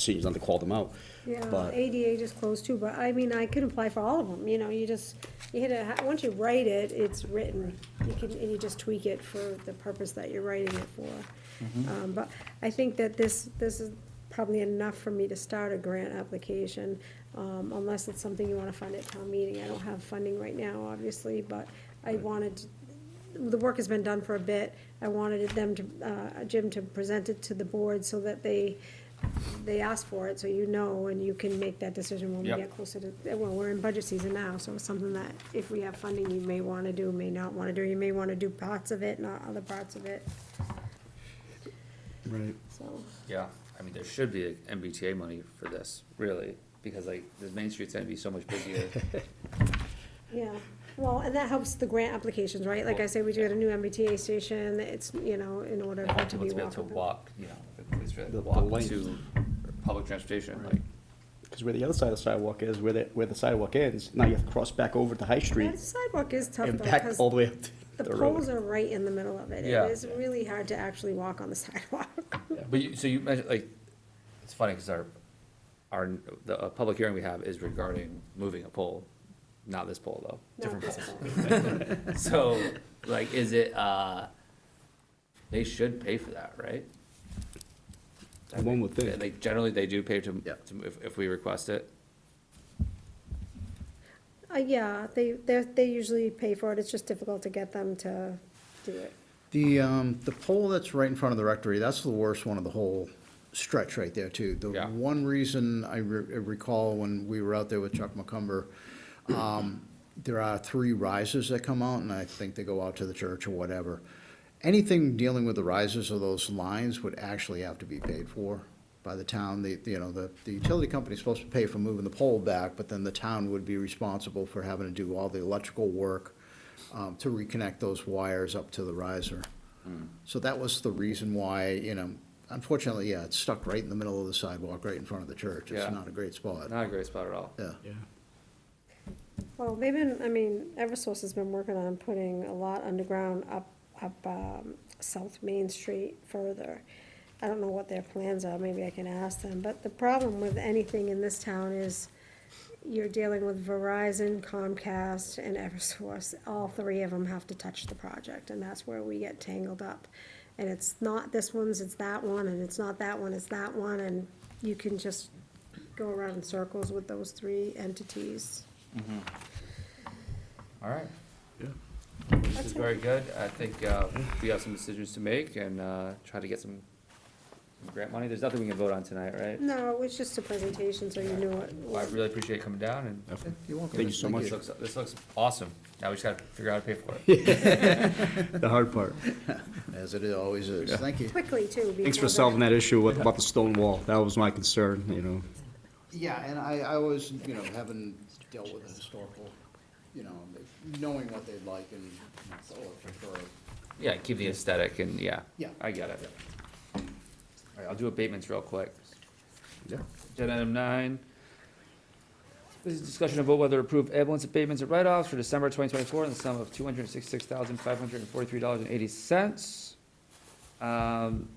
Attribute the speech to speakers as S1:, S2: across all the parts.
S1: seniors not to call them out.
S2: Yeah,
S1: But-
S2: ADA just closed too, but I mean, I could apply for all of them, you know, you just, you hit a, once you write it, it's written. You can, and you just tweak it for the purpose that you're writing it for. Um, but I think that this, this is probably enough for me to start a grant application, um, unless it's something you wanna fund at town meeting. I don't have funding right now, obviously, but I wanted to the work has been done for a bit. I wanted them to, uh, Jim to present it to the board so that they, they ask for it, so you know, and you can make that decision when we
S3: Yep.
S2: get closer to, well, we're in budget season now, so it's something that if we have funding, you may wanna do, may not wanna do, you may wanna do parts of it, not other parts of it,
S4: Right.
S2: so.
S3: Yeah, I mean, there should be MBTA money for this, really, because like, the Main Street's gonna be so much busier.
S2: Yeah, well, and that helps the grant applications, right? Like I say, we do get a new MBTA station, it's, you know, in order for it to
S3: People
S2: be
S3: to be able to
S2: walkable.
S3: walk, you know, at least really
S1: The- the
S3: walk
S1: length.
S3: to public transportation,
S1: Right.
S3: like,
S1: Because where the other side of the sidewalk is, where the, where the sidewalk ends, now you have to cross back over to High
S2: Yeah,
S1: Street
S2: the sidewalk is tough though,
S1: and back
S2: 'cause-
S1: all the way up to
S2: The
S1: the
S2: poles
S1: road.
S2: are right in the middle of it.
S3: Yeah.
S2: It is really hard to actually walk on the sidewalk.
S3: but you, so you mentioned, like, it's funny, cause our, our, the, uh public hearing we have is regarding moving a pole, not this pole though,
S2: Not
S3: different
S2: this
S3: pole.
S2: pole.
S3: So, like, is it, uh, they should pay for that, right?
S1: One would
S3: They-
S1: think.
S3: Like, generally, they do pay to,
S1: Yeah.
S3: to- if, if we request it.
S2: Uh, yeah, they, they, they usually pay for it. It's just difficult to get them to do it.
S4: The, um, the pole that's right in front of the rectory, that's the worst one of the whole stretch right there too. The
S3: Yeah.
S4: one reason I re- I recall when we were out there with Chuck McCumber, um, there are three risers that come out and I think they go out to the church or whatever. Anything dealing with the risers or those lines would actually have to be paid for by the town. The, you know, the, the utility company's supposed to pay for moving the pole back, but then the town would be responsible for having to do all the electrical work um, to reconnect those wires up to the riser.
S3: Hmm.
S4: So that was the reason why, you know, unfortunately, yeah, it's stuck right in the middle of the sidewalk, right in front of the church.
S3: Yeah.
S4: It's not a great spot.
S3: Not a great spot at all.
S4: Yeah.
S2: Well, they've been, I mean, Eversource has been working on putting a lot underground up, up, um, South Main Street further. I don't know what their plans are, maybe I can ask them, but the problem with anything in this town is you're dealing with Verizon, Comcast, and Eversource. All three of them have to touch the project, and that's where we get tangled up. And it's not this one's, it's that one, and it's not that one, it's that one, and you can just go around in circles with those three entities.
S3: All right.
S4: Yeah.
S3: This is very good. I think, uh, we have some decisions to make and, uh, try to get some some grant money. There's nothing we can vote on tonight, right?
S2: No, it was just a presentation, so you knew it.
S3: Well, Oh, I really appreciate you coming down and
S4: You're welcome.
S1: Thank you so much.
S3: this looks, this looks awesome. Now we just gotta figure out how to pay for it.
S1: The hard part.
S4: As it always is. Thank you.
S2: Quickly, too.
S1: Thanks
S2: before
S1: for solving that issue with, about the stone wall. That was my concern, you know.
S4: Yeah, and I, I always, you know, having dealt with the historical, you know, knowing what they'd like and, oh, for sure.
S3: Yeah, keep the aesthetic and, yeah.
S4: Yeah.
S3: I get it. All right, I'll do abatements real quick.
S4: Yeah.
S3: Agenda item nine. This is discussion of vote whether to approve ambulance abatements and write-offs for December twenty twenty-four in the sum of two hundred and sixty-six thousand, five hundred and forty-three dollars and eighty cents. Um,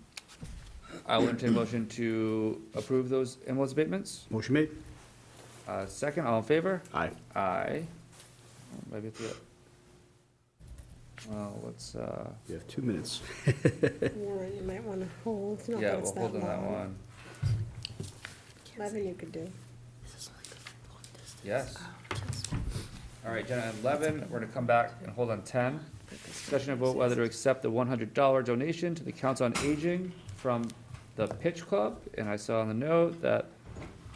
S3: I will entertain a motion to approve those ambulance abatements.
S1: Motion made?
S3: Uh, second, all in favor?
S1: Aye.
S3: Aye. Oh, Maybe it's, the- well, let's, uh,
S1: You have two minutes.
S2: that Warrant, you might wanna hold, not
S3: yeah,
S2: that
S3: we'll
S2: it's
S3: hold
S2: that
S3: on that
S2: long.
S3: one.
S2: Eleven you could do.
S3: Yes. All right, agenda item eleven, we're gonna come back and hold on ten. Discussion of vote whether to accept the one hundred dollar donation to the Council on Aging from the Pitch Club. And I saw on the note that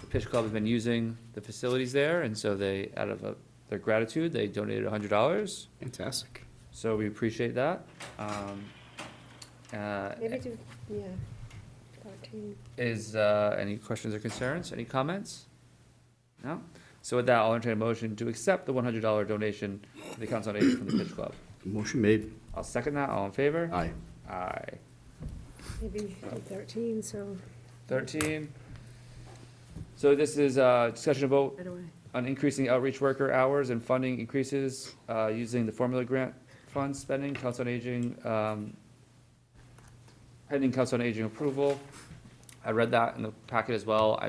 S3: the Pitch Club has been using the facilities there, and so they, out of uh, their gratitude, they donated hundred dollars.
S1: Fantastic.
S3: So we appreciate that. Um, uh,
S2: Maybe do, yeah, fourteen.
S3: Is, uh, any questions or concerns, any comments? No? So with that, I'll entertain a motion to accept the one hundred dollar donation to the Council on Aging from the Pitch Club.
S1: Motion made.
S3: I'll second that, all in favor?
S1: Aye.
S3: Aye.
S2: maybe you could do thirteen, so.
S3: Thirteen. So this is, uh, discussion of vote
S2: Right away.
S3: on increasing outreach worker hours and funding increases, uh, using the formula grant fund spending, Council on Aging, um, pending Council on Aging approval. I read that in the packet as well.